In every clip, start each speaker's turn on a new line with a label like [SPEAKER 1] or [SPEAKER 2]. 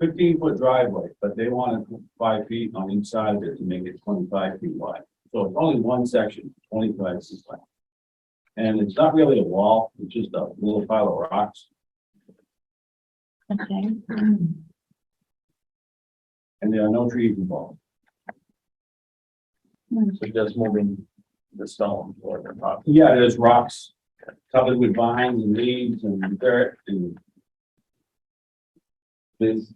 [SPEAKER 1] fifteen foot driveway, but they wanted five feet on each side of it to make it twenty-five feet wide. So it's only one section, twenty-five feet wide. And it's not really a wall, it's just a little pile of rocks,
[SPEAKER 2] Okay,
[SPEAKER 1] and there are no trees involved.
[SPEAKER 3] So just moving the stone or the property.
[SPEAKER 1] Yeah, there's rocks covered with vines and leaves and dirt and this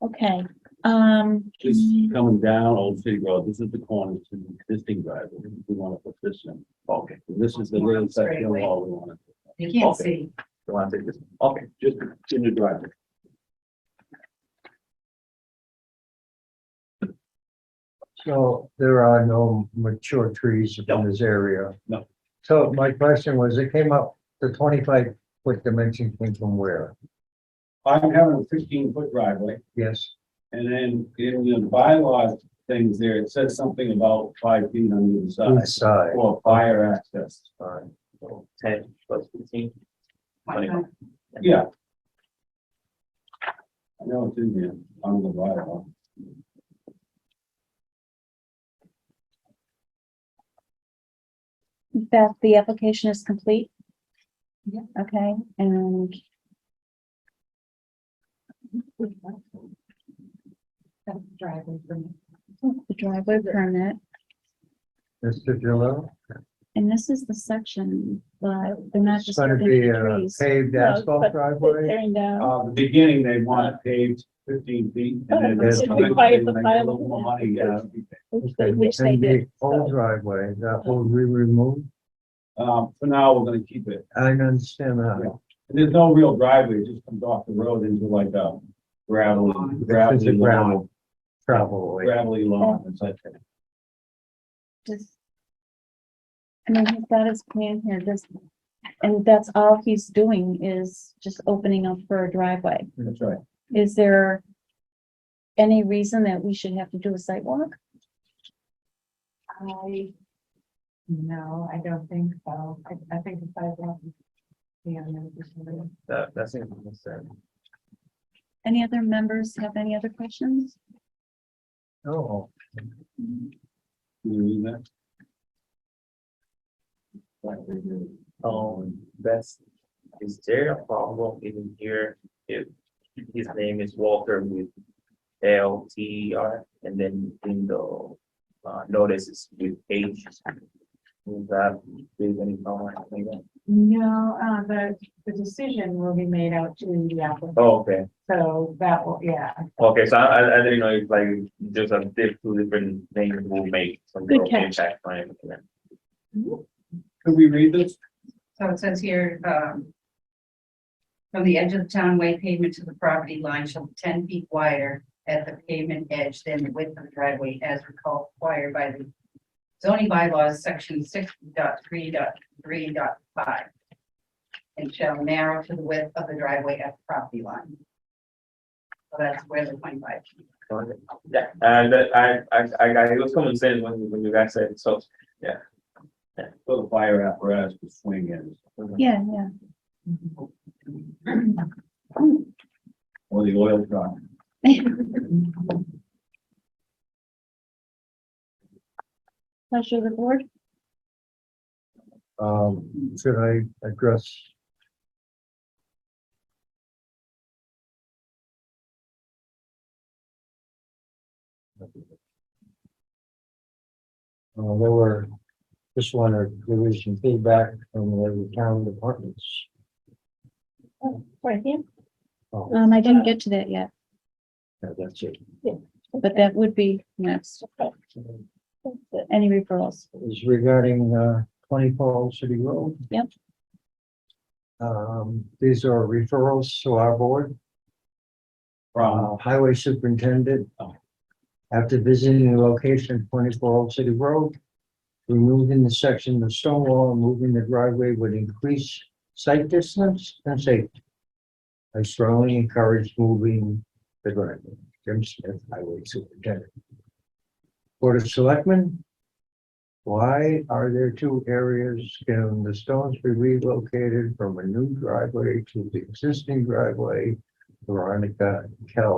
[SPEAKER 2] okay, um.
[SPEAKER 1] Just
[SPEAKER 3] Mm.
[SPEAKER 1] coming down Old City Road, this is the corner to the existing driveway, we want to put this in. Okay. This is the little section of wall we want to.
[SPEAKER 4] You can't
[SPEAKER 3] Okay.
[SPEAKER 4] see.
[SPEAKER 3] You want to take this? Okay, just in the driveway.
[SPEAKER 5] So there are no mature trees
[SPEAKER 1] No.
[SPEAKER 5] in this area?
[SPEAKER 1] No.
[SPEAKER 5] So my question was, it came up, the twenty-five foot dimension came from where?
[SPEAKER 1] I'm having a fifteen foot driveway,
[SPEAKER 5] Yes,
[SPEAKER 1] and then in the bylaws things there, it says something about five feet on either
[SPEAKER 5] east
[SPEAKER 1] side.
[SPEAKER 5] side.
[SPEAKER 1] For fire access,
[SPEAKER 3] Alright, so Ten plus fifteen.
[SPEAKER 4] Why not?
[SPEAKER 1] yeah. I know it's in here, on the bylaw.
[SPEAKER 2] That the application is complete?
[SPEAKER 4] Yeah.
[SPEAKER 2] Okay, and
[SPEAKER 4] That's driveway for me.
[SPEAKER 2] the driveway permit,
[SPEAKER 5] Mr. Gillo?
[SPEAKER 2] and this is the section, but they're not
[SPEAKER 5] It's
[SPEAKER 2] just.
[SPEAKER 5] gonna
[SPEAKER 2] putting
[SPEAKER 5] be a
[SPEAKER 2] trees.
[SPEAKER 5] paved
[SPEAKER 2] No, but
[SPEAKER 5] asphalt driveway?
[SPEAKER 2] There you go.
[SPEAKER 1] Uh, the beginning, they want it paved fifteen feet. and then
[SPEAKER 2] Oh,
[SPEAKER 1] there's
[SPEAKER 5] it
[SPEAKER 1] something,
[SPEAKER 2] requires the
[SPEAKER 1] they make a
[SPEAKER 2] file.
[SPEAKER 1] little more money, yeah.
[SPEAKER 2] Which they-
[SPEAKER 5] Okay,
[SPEAKER 2] which they
[SPEAKER 5] and the
[SPEAKER 2] did.
[SPEAKER 5] Whole driveway, that will be removed?
[SPEAKER 1] Um, for now, we're gonna keep it.
[SPEAKER 5] I don't understand that.
[SPEAKER 1] And there's no real driveway, it just comes off the road into like a gravel,
[SPEAKER 5] This is a
[SPEAKER 1] gravelly lawn,
[SPEAKER 5] gravel Travel way.
[SPEAKER 1] gravelly lawn and such.
[SPEAKER 2] Does- I mean, he's got his plan here, this, and that's all he's doing is just opening up for a driveway.
[SPEAKER 1] That's right.
[SPEAKER 2] Is there any reason that we should have to do a site walk?
[SPEAKER 4] I, no, I don't think so. I, I think if I want. Yeah, no, just a little.
[SPEAKER 3] That, that's it. That's it.
[SPEAKER 2] Any other members have any other questions?
[SPEAKER 5] Oh,
[SPEAKER 1] Can you read that? Right,
[SPEAKER 3] Um, that's, is there a problem in here if his name is Walter with L T E R and then in the uh, notice is with H? Is that, is any problem? I think that-
[SPEAKER 4] No, uh, the, the decision will be made out to the applicant,
[SPEAKER 3] Oh, Okay,
[SPEAKER 4] so that will, yeah.
[SPEAKER 3] okay, so I, I- I didn't know if like there's a diff, two different names will make some
[SPEAKER 2] Good
[SPEAKER 3] sort of
[SPEAKER 2] catch.
[SPEAKER 3] impact on it.
[SPEAKER 1] Could we read this?
[SPEAKER 6] So it says here, um. From the edge of the townway pavement to the property line shall be ten feet wider at the pavement edge than the width of the driveway as required by the. Zoning bylaws, section 6.3.3.5, And shall narrow to the width of the driveway at the property line. So that's where the twenty-five. feet.
[SPEAKER 3] Yeah, and that- I, I, I, I- it was common sense when, when you guys said, so.
[SPEAKER 1] So the fire apparatus to swing in,
[SPEAKER 2] Yeah, yeah.
[SPEAKER 1] or the oil truck.
[SPEAKER 2] Pleasure of the board.
[SPEAKER 5] um, should I address? Uh, there were, just wanted, there was some feedback from the town departments.
[SPEAKER 2] Right here.
[SPEAKER 5] Oh,
[SPEAKER 2] Um, I didn't get to that yet,
[SPEAKER 5] yeah, that's it.
[SPEAKER 2] but that would be next. Any referrals?
[SPEAKER 5] is regarding uh, 24 Old City Road.
[SPEAKER 2] Yep.
[SPEAKER 5] Um, These are referrals to our board.
[SPEAKER 1] From,
[SPEAKER 5] Uh, Highway Superintendent,
[SPEAKER 1] Oh.
[SPEAKER 5] after visiting the location of 24 Old City Road, removing the section of stone wall and moving the driveway would increase sight distance and safety. I strongly encourage moving the driveway. Jim Smith, Highway Superintendent. Board of Selectmen, why are there two areas? Can the stones be relocated from a new driveway to the existing driveway Veronica Kell